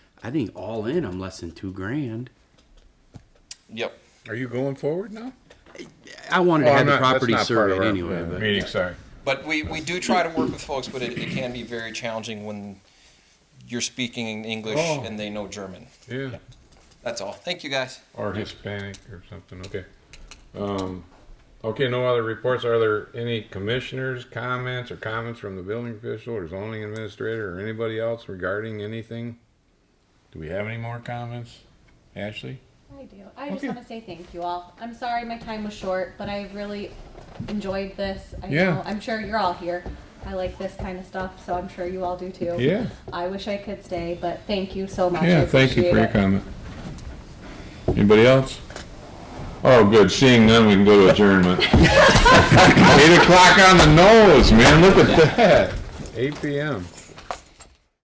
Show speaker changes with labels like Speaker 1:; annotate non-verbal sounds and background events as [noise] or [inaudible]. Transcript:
Speaker 1: I think all in, I'm less than two grand.
Speaker 2: Yep.
Speaker 3: Are you going forward now?
Speaker 1: I wanted
Speaker 3: Well,
Speaker 1: to
Speaker 3: I'm
Speaker 1: have
Speaker 3: not-
Speaker 1: the
Speaker 3: that's
Speaker 1: property
Speaker 3: not part of
Speaker 1: surveyed
Speaker 3: our,
Speaker 1: anyway,
Speaker 3: uh,
Speaker 1: but
Speaker 4: Meeting, sorry.
Speaker 2: But we, we do try to work with folks, but it, it can be very challenging when you're speaking in English
Speaker 3: Oh.
Speaker 2: and they know German.
Speaker 4: Yeah,
Speaker 2: That's all. Thank you, guys.
Speaker 4: or Hispanic or something, okay. Um, okay, no other reports. Are there any commissioners' comments or comments from the building official or zoning administrator or anybody else regarding anything? Do we have any more comments? Ashley?
Speaker 5: I do. I just
Speaker 4: Okay.
Speaker 5: want to say thank you all. I'm sorry my time was short, but I really enjoyed this. I
Speaker 4: Yeah.
Speaker 5: know, I'm sure you're all here. I like this kind of stuff, so I'm sure you all do too.
Speaker 4: Yeah.
Speaker 5: I wish I could stay, but thank you so much. I
Speaker 4: Yeah, thank you for your
Speaker 5: appreciate it.
Speaker 4: comment. Anybody else? Oh, good, seeing none, we can go to
Speaker 5: [laughs]
Speaker 4: adjournment. Eight o'clock on the nose, man, look at that. Eight PM.